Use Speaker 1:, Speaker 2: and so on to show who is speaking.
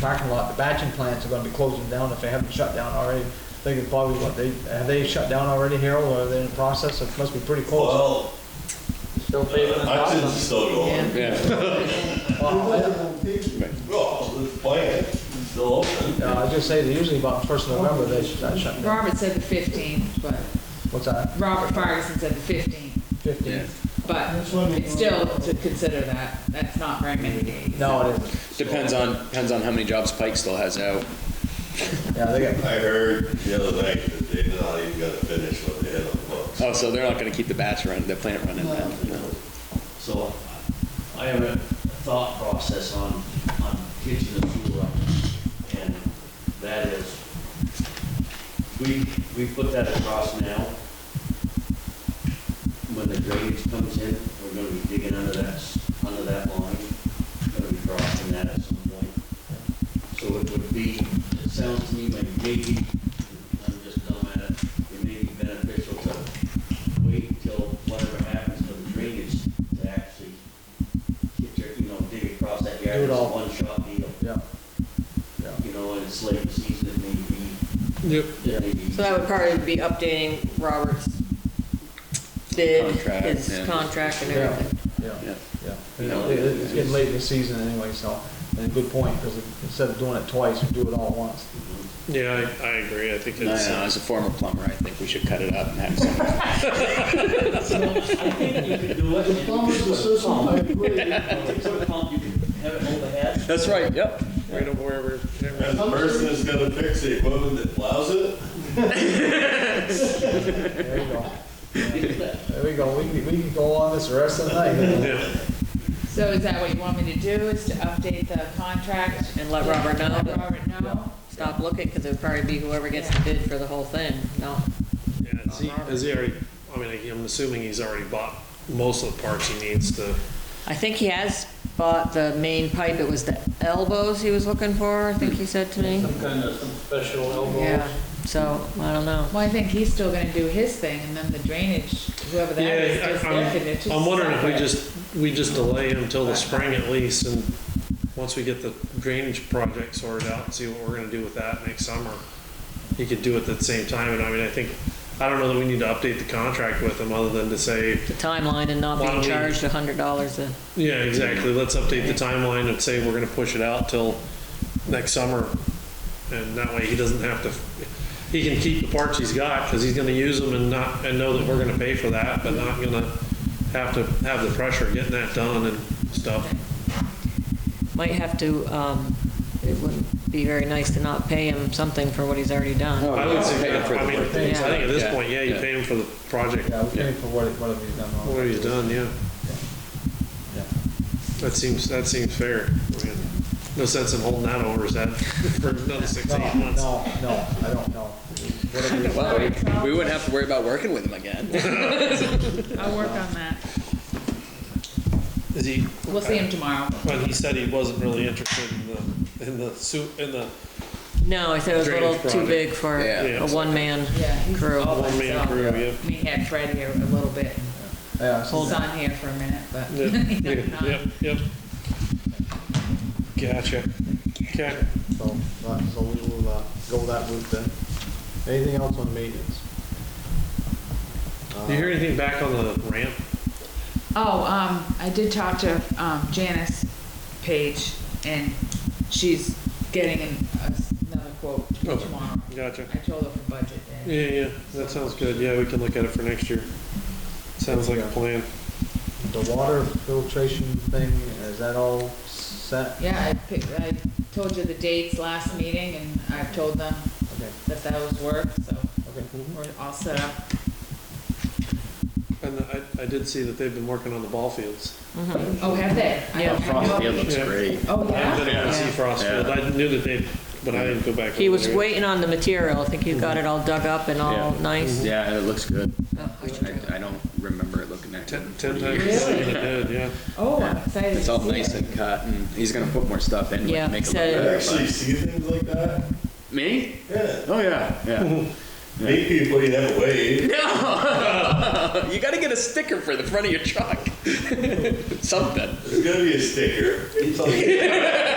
Speaker 1: parking lot, the batching plants are gonna be closing down if they haven't shut down already. They could probably, what, they, have they shut down already, Harold, or are they in the process? It must be pretty close.
Speaker 2: Well,
Speaker 1: Still paving the
Speaker 2: Hudson's
Speaker 1: bottom.
Speaker 2: is still going.
Speaker 3: Yeah,
Speaker 2: Well, the plant is still open.
Speaker 1: No, I was gonna say, they usually about first of November, they shut shut down.
Speaker 4: Robert said the fifteenth, but
Speaker 1: What's that,
Speaker 4: Robert Ferguson said the fifteenth,
Speaker 1: fifteen?
Speaker 3: Yeah.
Speaker 4: but it's still to consider that. That's not very many days.
Speaker 1: No, it isn't.
Speaker 3: depends on, depends on how many jobs Pike still has out.
Speaker 1: Yeah, they got,
Speaker 2: I heard the other night that they did not even got to finish what they had on the books.
Speaker 3: Oh, so they're not gonna keep the batch running, the plant running now, no.
Speaker 5: So I have a thought process on, on kitchen and sewer, and that is, we, we put that across now. When the drainage comes in, we're gonna be digging under that, s- under that line, gonna be crossing that at some point. So it would be, it sounds to me like maybe, I'm just dumb at it, it may be beneficial to wait till whatever happens to the drainage to actually get your, you know, dig across that yard.
Speaker 1: Do it
Speaker 5: It's a
Speaker 1: all.
Speaker 5: One-shot deal,
Speaker 1: yeah.
Speaker 5: you know, and it's late in the season, it may be,
Speaker 3: Yep.
Speaker 5: it may be.
Speaker 6: So that would probably be updating Robert's bid,
Speaker 3: Contract, yeah.
Speaker 6: his contract and
Speaker 1: Yeah.
Speaker 6: everything.
Speaker 1: Yeah,
Speaker 3: Yeah.
Speaker 1: yeah. You know, it- It's getting late in the season anyway, so, and good point, because instead of doing it twice, we do it all at once.
Speaker 7: Yeah, I, I agree. I think
Speaker 3: No,
Speaker 7: it's,
Speaker 3: no, as a former plumber, I think we should cut it up and have some.
Speaker 5: I think you could do it. The
Speaker 8: Plumbers association, I agree.
Speaker 5: Put a pump, you can have it hold the head.
Speaker 3: That's right, yep.
Speaker 7: right over where we're,
Speaker 2: And the person that's gonna fix the equipment that plows it,
Speaker 1: There you go. There we go. We can, we can go on this the rest of the night.
Speaker 7: yeah.
Speaker 4: So is that what you want me to do, is to update the contract?
Speaker 6: And let Robert know
Speaker 4: Let
Speaker 6: that-
Speaker 4: Robert know?
Speaker 6: Stop looking, because it'd probably be whoever gets the bid for the whole thing, no.
Speaker 7: Yeah, Has he, has he already, I mean, like, I'm assuming he's already bought most of the parts he needs to,
Speaker 6: I think he has bought the main pipe, it was the elbows he was looking for, I think he said to me.
Speaker 5: Some kind of some special
Speaker 6: Yeah, so, I don't know.
Speaker 4: Well, I think he's still gonna do his thing, and then the drainage, whoever that is,
Speaker 7: Yeah,
Speaker 4: does
Speaker 7: I-
Speaker 4: their thing. It's
Speaker 7: I'm,
Speaker 4: just
Speaker 7: I'm wondering if we
Speaker 4: separate.
Speaker 7: just, we just delay him till the spring at least, and once we get the drainage project sorted out, and see what we're gonna do with that next summer. He could do it at the same time, and I mean, I think, I don't know that we need to update the contract with him, other than to say,
Speaker 6: The timeline and not
Speaker 7: Why don't
Speaker 6: being
Speaker 7: we-
Speaker 6: charged a hundred dollars uh, a,
Speaker 7: yeah, exactly, let's update the timeline and say we're gonna push it out till next summer. And that way he doesn't have to, he can keep the parts he's got, cause he's gonna use them and not, and know that we're gonna pay for that, but not gonna have to have the pressure of getting that done and stuff.
Speaker 6: might have to, um, it wouldn't be very nice to not pay him something for what he's already done.
Speaker 7: I would say,
Speaker 3: Oh, Paying for
Speaker 7: I
Speaker 3: the
Speaker 7: mean, I
Speaker 3: work.
Speaker 7: think at this
Speaker 3: Yeah.
Speaker 7: point, yeah, you
Speaker 3: Yeah.
Speaker 7: pay him for the project,
Speaker 1: Yeah, we can for what, what have you done? wrong.
Speaker 7: what he's done, yeah.
Speaker 1: Yeah.
Speaker 7: That seems, that seems fair. I mean, No sense in holding that over his head for another six,
Speaker 1: No,
Speaker 7: eight months.
Speaker 1: no, no, I don't know. Whatever you-
Speaker 3: Well, we- we wouldn't have to worry about working with him again.
Speaker 4: I'll work on that.
Speaker 7: Is he,
Speaker 4: We'll see him tomorrow.
Speaker 7: But he said he wasn't really interested in the, in the suit, in the
Speaker 6: No, I said it was a little
Speaker 7: Drainage
Speaker 6: too
Speaker 7: project.
Speaker 6: big for
Speaker 3: Yeah.
Speaker 6: a one-man
Speaker 4: Yeah, he's
Speaker 6: crew.
Speaker 4: all by
Speaker 7: one-man
Speaker 4: himself.
Speaker 7: crew, yeah.
Speaker 4: I mean, he had Fred here a little bit,
Speaker 1: Yeah, so-
Speaker 4: he's on here for a minute, but. he's
Speaker 7: Yeah,
Speaker 4: not-
Speaker 7: Yep, yep. Gotcha. Okay.
Speaker 1: so, right, so we will, uh, go that route then. Anything else on maintenance?
Speaker 7: Do you hear anything back on the ramp?
Speaker 4: Oh, um, I did talk to, um, Janice Page, and she's getting an- another quote
Speaker 7: Okay.
Speaker 4: tomorrow.
Speaker 7: Gotcha.
Speaker 4: I told her for budget day.
Speaker 7: Yeah, yeah, that sounds good. Yeah, we can look at it for next year. Sounds like a plan.
Speaker 1: Uh, The water filtration thing, is that all set?
Speaker 4: Yeah, I picked, I told you the dates last meeting, and I've told them
Speaker 1: Okay,
Speaker 4: that that was work, so
Speaker 1: okay.
Speaker 4: we're all set up.
Speaker 7: And I, I did see that they've been working on the ball fields.
Speaker 4: Oh, have they? I
Speaker 6: Yeah.
Speaker 4: don't- I
Speaker 3: Frost
Speaker 4: know-
Speaker 3: Field looks
Speaker 7: Yeah.
Speaker 3: great.
Speaker 4: Oh,
Speaker 7: I
Speaker 4: yeah?
Speaker 7: didn't even see Frost Field. I knew that they, but I didn't go back.
Speaker 6: He
Speaker 7: over
Speaker 6: was
Speaker 7: there.
Speaker 6: waiting on the material, I think he got it all dug up and all
Speaker 3: Yeah.
Speaker 6: Oh, nice.
Speaker 3: Yeah, it looks good.
Speaker 6: Oh, I should
Speaker 3: I, I don't remember it looking that good.
Speaker 7: Ten, ten times. Really? Did, yeah.
Speaker 4: Oh, I'm excited.
Speaker 3: It's
Speaker 4: to
Speaker 3: all
Speaker 4: see
Speaker 3: nice
Speaker 4: it.
Speaker 3: and cut, and he's gonna put more stuff in,
Speaker 6: Yeah,
Speaker 3: like, make it look
Speaker 6: said-
Speaker 2: I
Speaker 3: better.
Speaker 2: actually see things like that.
Speaker 3: but- Me?
Speaker 2: Yeah,
Speaker 3: Oh, yeah, yeah.
Speaker 2: meet people you never wave.
Speaker 3: No! You gotta get a sticker for the front of your truck. Something.
Speaker 2: There's gonna be a sticker.